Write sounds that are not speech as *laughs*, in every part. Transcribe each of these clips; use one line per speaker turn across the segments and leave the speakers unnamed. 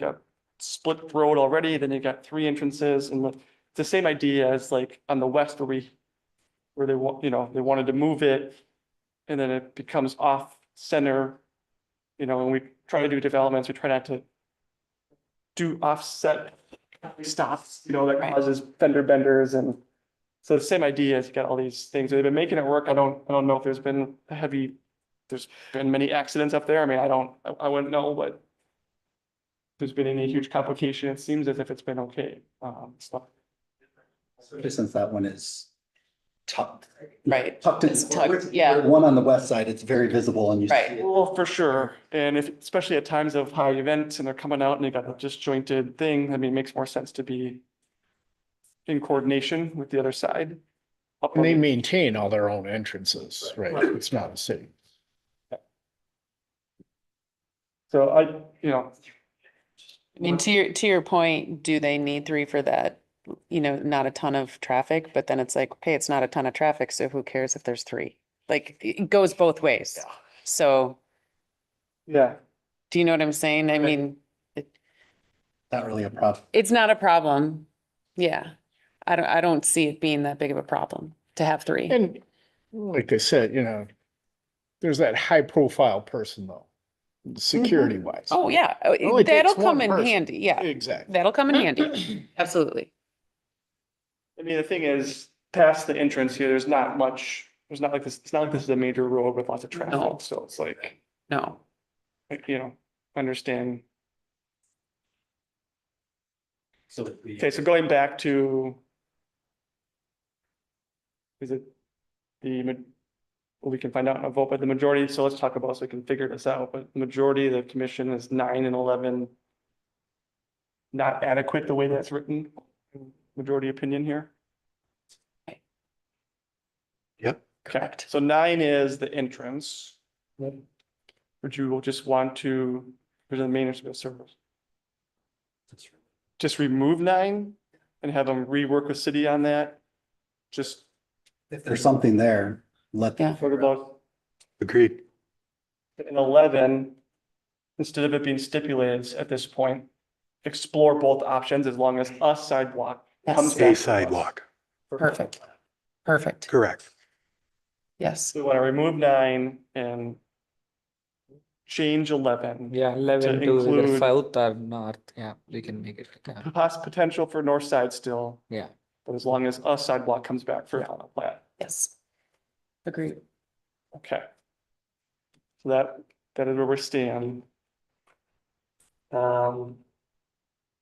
you got split road already, then you got three entrances and like, it's the same idea as like on the west where we, where they want, you know, they wanted to move it and then it becomes off center. You know, when we try to do developments, we try not to do offset stops, you know, that
Right.
causes fender benders and so the same idea is you got all these things. They've been making it work. I don't, I don't know if there's been a heavy, there's been many accidents up there. I mean, I don't, I, I wouldn't know, but if there's been any huge complication. It seems as if it's been okay. Um, so
Especially since that one is tucked.
Right.
Tucked in.
It's tucked, yeah.
One on the west side, it's very visible and you see
Right.
it.
Well, for sure, and if, especially at times of high events and they're coming out and they got a disjointed thing, I mean, it makes more sense to be in coordination with the other side. Up
And they
on-
maintain all their own entrances, right? It's not a city.
So I, you know,
I mean, to your, to your point, do they need three for that? You know, not a ton of traffic, but then it's like, okay, it's not a ton of traffic, so who cares if there's three? Like, it it goes both ways.
Yeah.
So,
yeah,
do you know what I'm saying? I mean,
Not really a problem.
it's not a problem. Yeah. I don't, I don't see it being that big of a problem to have three.
And like I said, you know, there's that high profile person though, security wise.
Oh, yeah, Oh, it-
only
that'll
takes one
come in
person.
handy, yeah,
Exactly.
that'll come in
*clears throat*
handy, absolutely.
I mean, the thing is, past the entrance here, there's not much, there's not like this, it's not like this is a major road with lots of
No.
traffic, so it's like,
No,
like, you know, understand.
So if we-
Okay, so going back to. Is it the, ma- well, we can find out in a vote, but the majority, so let's talk about, so we can figure this out, but the majority of the commission is nine and eleven. Not adequate the way that's written, majority opinion here.
Yep.
Okay,
Correct.
so nine is the entrance. Would you just want to, for the main entrance service? just remove nine and have them rework with city on that? Just
If there's something there, let.
Yeah.
sort of about
Agreed.
in eleven, instead of it being stipulated at this point, explore both options as long as a sidewalk comes back.
yes,
to
A
us.
sidewalk,
perfect, perfect,
correct.
yes.
We want to remove nine and change eleven.
Yeah, eleven to
include-
either south or north, yeah, we can make it, yeah.
Poss- potential for north side still.
Yeah.
But as long as a sidewalk comes back for final plat.
Yes. Agreed.
Okay. So that, that is where we stand. Um.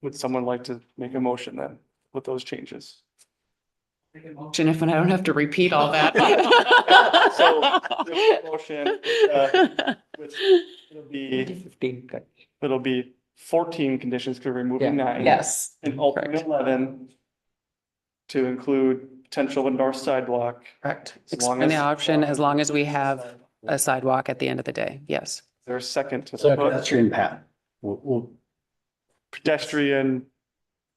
Would someone like to make a motion then with those changes?
Motion if I don't have to repeat all that.
*laughs*
*laughs*
So, the motion, uh, with- it'll be,
Fifteen cut.
it'll be fourteen conditions because we're removing
Yeah.
nine.
Yes,
And alternate
correct.
eleven. To include potential of north sidewalk.
correct.
As long
Expand the
as- uh,
option as long as we have a sidewalk at the end of the day, yes.
There's second to
Second.
put
Pedestrian path. We'll, we'll.
pedestrian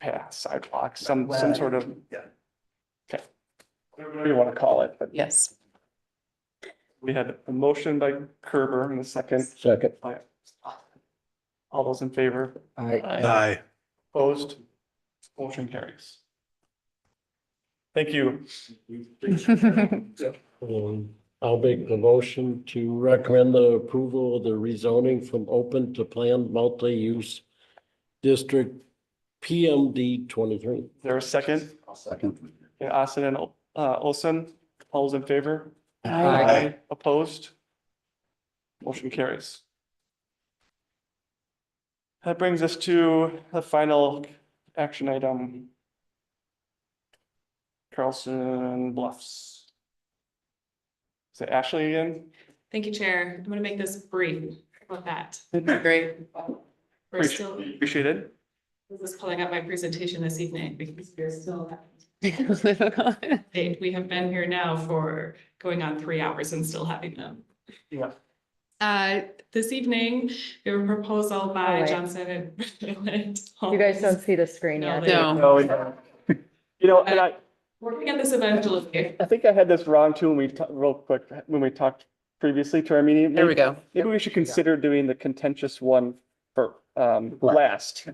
path sidewalk, some, some sort of.
Yeah.
Okay. Whatever you want to call it, but
Yes,
we had a motion by Kerber and a second
Second.
by. All those in favor,
Aye.
opposed, motion carries. Thank you.
Um, I'll make the motion to recommend the approval of the rezoning from open to planned multi-use district PMD twenty-three.
There a second?
I'll second.
Yeah, Austin and uh, Olson, all those in favor?
Aye.
Opposed? Motion carries. That brings us to the final action item. Carlson Bluffs. Is it Ashley again?
Thank you, Chair. I'm gonna make this brief about that.
great.
We're still,
Appreciate it.
this is pulling up my presentation this evening because we're still at date. We have been here now for going on three hours and still having them.
Yeah.
Uh, this evening, we have a proposal by
right.
Johnson and.
Oh, You guys don't see the screen yet.
No.
No,
No, we don't. You know, and I,
Working at this eventually.
I think I had this wrong too, when we, ta- real quick, when we talked previously to our meeting.
*laughs* there we go.
Maybe we should consider doing the contentious one fir- um,
Last.
last.